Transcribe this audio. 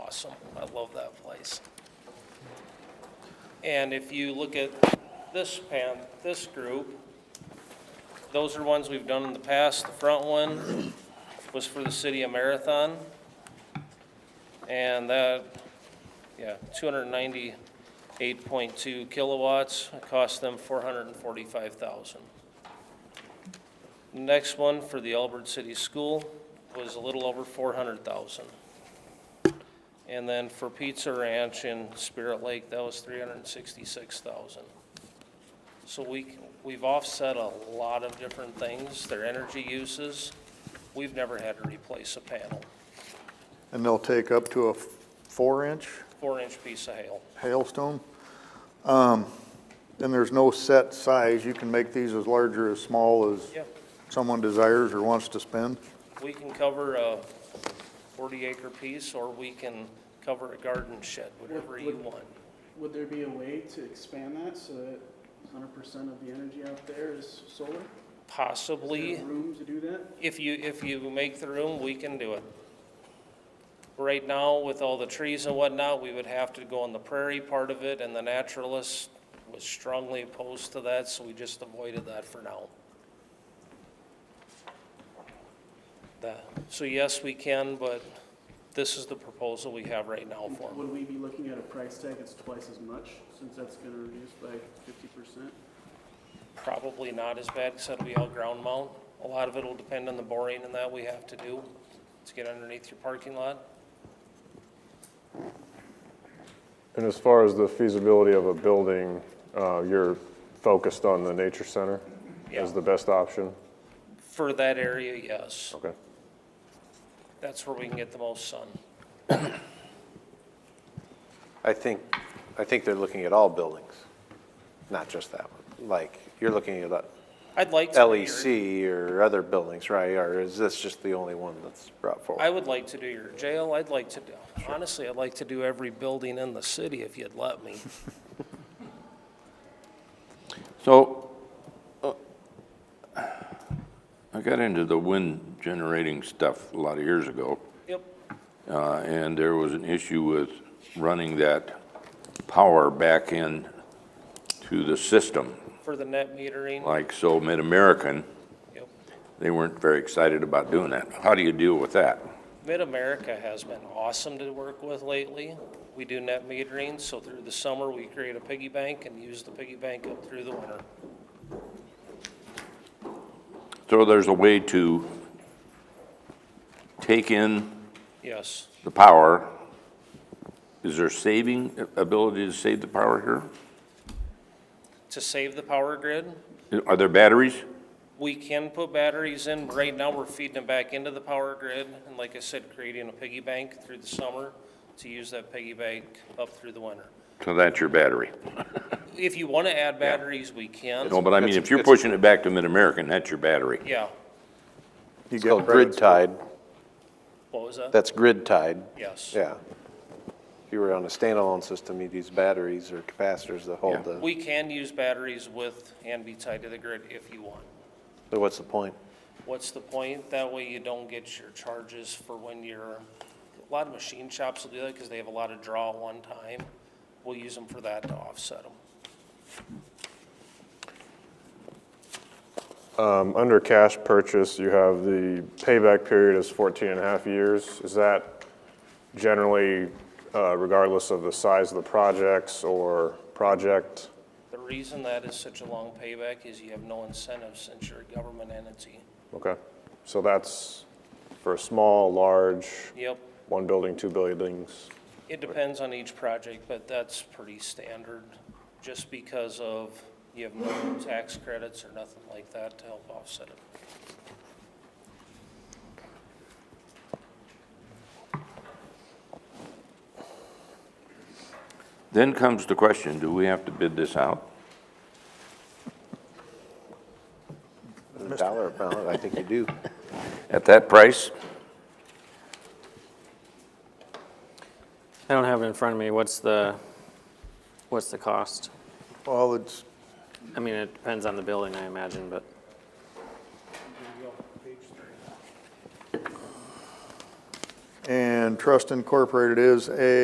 awesome. I love that place. And if you look at this pan, this group, those are ones we've done in the past. The front one was for the city of Marathon. And that, yeah, two hundred and ninety-eight point two kilowatts. It cost them four hundred and forty-five thousand. Next one for the Albert City School was a little over four hundred thousand. And then for Pizza Ranch in Spirit Lake, that was three hundred and sixty-six thousand. So we, c- we've offset a lot of different things, their energy uses. We've never had to replace a panel, And they'll take up to a four-inch four-inch piece of hail. hailstone. Um, And there's no set size. You can make these as large or as small as Yeah. someone desires or wants to spend. We can cover a forty-acre piece, or we can cover a garden shed, whatever you want. Would there be a way to expand that so that hundred percent of the energy out there is solar? Is there Possibly. Room to do that? If you, if you make the room, we can do it. Right now, with all the trees and whatnot, we would have to go on the prairie part of it, and the naturalist was strongly opposed to that, so we just avoided that for now. That- so yes, we can, but this is the proposal we have right now for 'em. Would we be looking at a price tag that's twice as much, since that's gonna reduce by fifty percent? Probably not as bad, because it'll be all ground mount. A lot of it'll depend on the boring and that we have to do to get underneath your parking lot. And as far as the feasibility of a building, uh, you're focused on the nature center Yeah. as the best option? For that area, yes. Okay. That's where we can get the most sun. I think, I think they're looking at all buildings, not just that one. Like, you're looking at uh, I'd like to. do E your- LEC or other buildings, right? Or is this just the only one that's brought I forward? would like to do your jail. I'd like to do, honestly, I'd like to do every building in the city if you'd let me. So, uh, I got into the wind generating stuff a lot of years ago, Yep, uh, and there was an issue with running that power back in to the system, for the net metering, like so Mid-American, yep. they weren't very excited about doing that. How do you deal with that? Mid-America has been awesome to work with lately. We do net metering, so through the summer, we create a piggy bank and use the piggy bank up through the winter. So there's a way to take in Yes, the power. Is there saving, ability to save the power here? to save the power grid, Are there batteries? We can put batteries in, but right now we're feeding them back into the power grid, and like I said, creating a piggy bank through the summer to use that piggy bank up through the winter. So that's your battery. If you want to add batteries, we No, can. but I mean, It's- if you're it's- pushing it back to Mid-American, that's your battery. Yeah, You It's get called credits grid for- tied. what was that? That's grid tied, Yes. yeah. If you were on a standalone system, you'd use batteries or capacitors that Yeah. hold the, We can use batteries with and be tied to the grid if you want. so what's the point? What's the point? That way you don't get your charges for when you're, a lot of machine shops will do that because they have a lot of draw at one time. We'll use them for that to offset them. Um, Under cash purchase, you have the payback period is 14 and a half years. Is that generally uh, regardless of the size of the projects or project? The reason that is such a long payback is you have no incentive since you're a government entity. Okay, so that's for small, large, Yep, one building, two buildings. it depends on each project, but that's pretty standard, just because of you have no tax credits or nothing like that to help offset it. Then comes the question, do we have to bid this out? A dollar a pound, I think you do. At that price? I don't have it in front of me. What's the, what's the cost? Well, it's, I mean, it depends on the building, I imagine, but and Trust Incorporated is a